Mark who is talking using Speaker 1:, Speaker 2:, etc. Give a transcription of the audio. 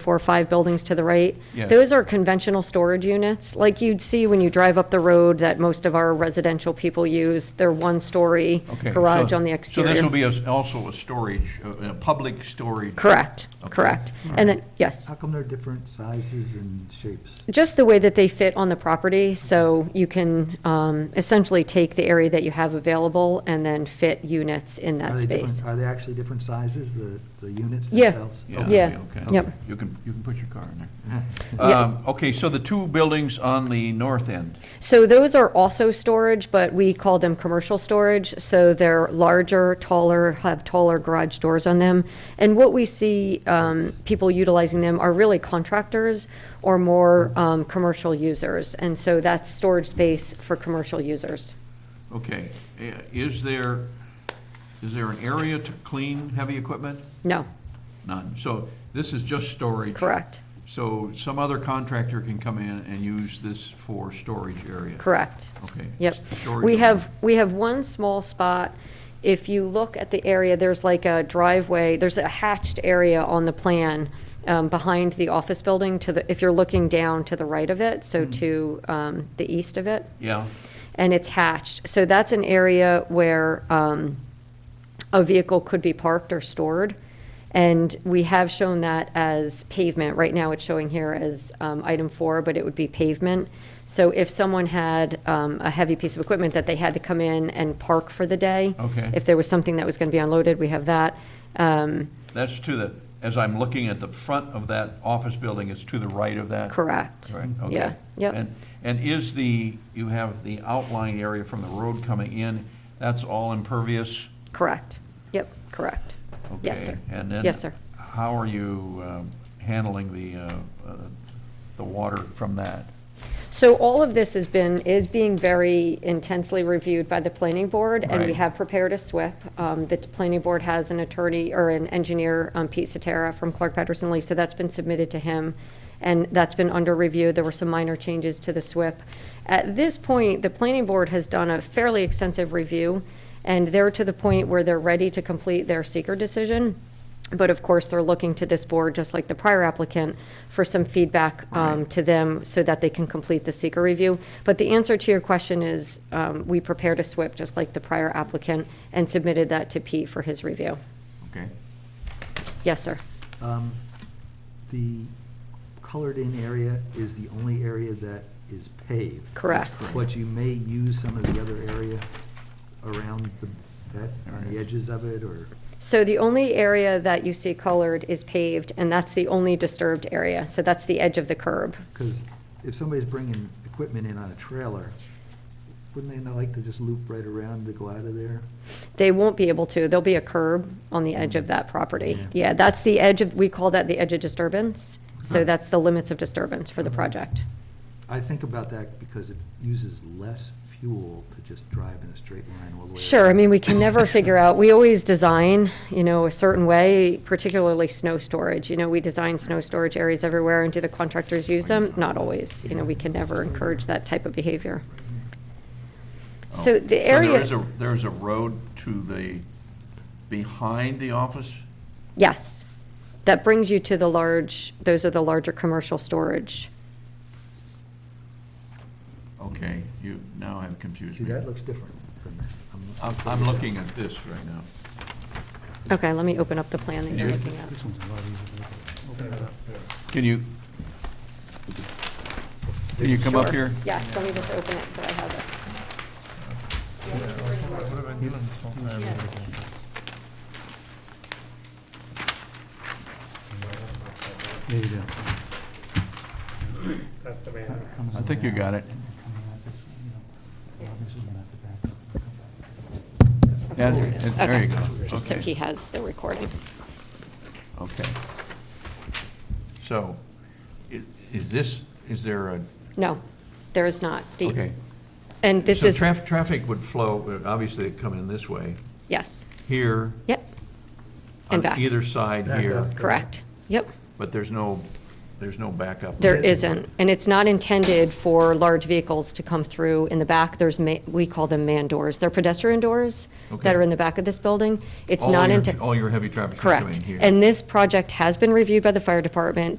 Speaker 1: four or five buildings to the right.
Speaker 2: Yes.
Speaker 1: Those are conventional storage units, like you'd see when you drive up the road that most of our residential people use. They're one-story
Speaker 2: Okay,
Speaker 1: garage
Speaker 2: so-
Speaker 1: on the
Speaker 2: So this will
Speaker 1: exterior.
Speaker 2: be a- also a storage, a a public storage?
Speaker 1: Correct,
Speaker 2: Okay. Uh,
Speaker 1: correct. And then, yes,
Speaker 3: How come they're different sizes and shapes?
Speaker 1: just the way that they fit on the property, so you can um, essentially take the area that you have available and then fit units in
Speaker 3: Are
Speaker 1: that
Speaker 3: they different-
Speaker 1: space.
Speaker 3: Are they actually different sizes, the, the units
Speaker 1: Yeah.
Speaker 3: themselves?
Speaker 2: Yeah,
Speaker 3: Okay.
Speaker 1: Yeah,
Speaker 2: okay.
Speaker 1: yep.
Speaker 2: You can, you can put your car in there.
Speaker 1: Yeah.
Speaker 2: Um, Okay, so the two buildings on the north end,
Speaker 1: So those are also storage, but we call them commercial storage. So they're larger, taller, have taller garage doors on them. And what we see um, people utilizing them are really contractors or more um, commercial users. And so that's storage space for commercial users.
Speaker 2: okay. eh, Is there, is there an area to clean heavy equipment?
Speaker 1: No,
Speaker 2: None. So this is just storage?
Speaker 1: correct,
Speaker 2: So some other contractor can come in and use this for storage area?
Speaker 1: correct.
Speaker 2: Okay.
Speaker 1: Yep.
Speaker 2: Storage
Speaker 1: We
Speaker 2: only.
Speaker 1: have, we have one small spot. If you look at the area, there's like a driveway, there's a hatched area on the plan um, behind the office building to the, if you're looking down to the right of it, so
Speaker 2: Mm-hmm.
Speaker 1: to um, the east of it,
Speaker 2: Yeah,
Speaker 1: and it's hatched. So that's an area where um, a vehicle could be parked or stored. And we have shown that as pavement. Right now, it's showing here as um, item four, but it would be pavement. So if someone had um, a heavy piece of equipment that they had to come in and park for the day,
Speaker 2: Okay.
Speaker 1: if there was something that was going to be unloaded, we have that. Um,
Speaker 2: that's to the, as I'm looking at the front of that office building, it's to the right of that?
Speaker 1: Correct.
Speaker 2: Right, okay.
Speaker 1: Yeah, yep.
Speaker 2: And, and is the, you have the outline area from the road coming in, that's all impervious?
Speaker 1: Correct. Yep, correct. Yes, sir.
Speaker 2: Okay, And then?
Speaker 1: Yes, sir.
Speaker 2: How are you um, handling the, uh, uh, the water from that?
Speaker 1: So all of this has been, is being very intensely reviewed by the planning board, and we
Speaker 2: Right.
Speaker 1: have prepared a SWIP. Um, The planning board has an attorney, or an engineer, um, Pete Satara from Clark Patterson Lee, so that's been submitted to him, and that's been under review. There were some minor changes to the SWIP. At this point, the planning board has done a fairly extensive review, and they're to the point where they're ready to complete their seeker decision. But of course, they're looking to this board, just like the prior applicant, for some feedback um, to them so that they can complete the seeker review. But the answer to your question is, um, we prepared a SWIP, just like the prior applicant, and submitted that to Pete for his review.
Speaker 2: Okay?
Speaker 1: Yes, sir.
Speaker 3: Um, The colored-in area is the only area that is paved.
Speaker 1: Correct.
Speaker 2: correct.
Speaker 3: But you may use some of the other area around the, that, on the edges of it, or,
Speaker 1: So the only area that you see colored is paved, and that's the only disturbed area. So that's the edge of the curb.
Speaker 3: because if somebody's bringing equipment in on a trailer, wouldn't they not like to just loop right around to go out of there?
Speaker 1: They won't be able to. There'll be a curb on the edge of that property.
Speaker 3: Yeah.
Speaker 1: Yeah, that's the edge of, we call that the edge of disturbance. So that's the limits of disturbance for the project.
Speaker 3: I think about that because it uses less fuel to just drive in a straight line all the way.
Speaker 1: Sure, I mean, we can never figure out, we always design, you know, a certain way, particularly snow storage. You know, we design snow storage areas everywhere, and do the contractors use them? Not always. You know, we can never encourage that type of behavior. So
Speaker 2: Oh,
Speaker 1: the area.
Speaker 2: there is a, there's a road to the, behind the office?
Speaker 1: Yes. That brings you to the large, those are the larger commercial storage.
Speaker 2: Okay, you now have confused
Speaker 3: See,
Speaker 2: me.
Speaker 3: that looks different than that. I'm-
Speaker 2: I'm, I'm looking at this right now.
Speaker 1: Okay, let me open up the plan that you're
Speaker 2: Yeah.
Speaker 1: looking at.
Speaker 2: Can you, can you come up
Speaker 1: Sure.
Speaker 2: here?
Speaker 1: Yes, let me just open it so I have it.
Speaker 3: There you go.
Speaker 4: That's the main.
Speaker 2: I think you got it. Yeah,
Speaker 1: There it is.
Speaker 2: There you
Speaker 1: Okay.
Speaker 2: go.
Speaker 1: Just so
Speaker 2: Okay.
Speaker 1: he has the recording.
Speaker 2: Okay. So, i- is this, is there a,
Speaker 1: No, there is not. The-
Speaker 2: okay.
Speaker 1: And this
Speaker 2: So
Speaker 1: is,
Speaker 2: traf- Traffic would flow, would obviously it'd come in this way,
Speaker 1: yes,
Speaker 2: here.
Speaker 1: yep. And back.
Speaker 2: On either side
Speaker 3: Back
Speaker 2: here,
Speaker 3: up.
Speaker 1: Correct, yep.
Speaker 2: but there's no, there's no backup.
Speaker 1: There
Speaker 3: Yeah.
Speaker 1: isn't, and it's not intended for large vehicles to come through in the back. There's, ma- we call them man doors. They're pedestrian doors that
Speaker 2: Okay.
Speaker 1: are in the back of this building. It's
Speaker 2: All
Speaker 1: not
Speaker 2: your-
Speaker 1: intended.
Speaker 2: All your heavy traffic is coming
Speaker 1: Correct.
Speaker 2: here.
Speaker 1: And this project has been reviewed by the fire department.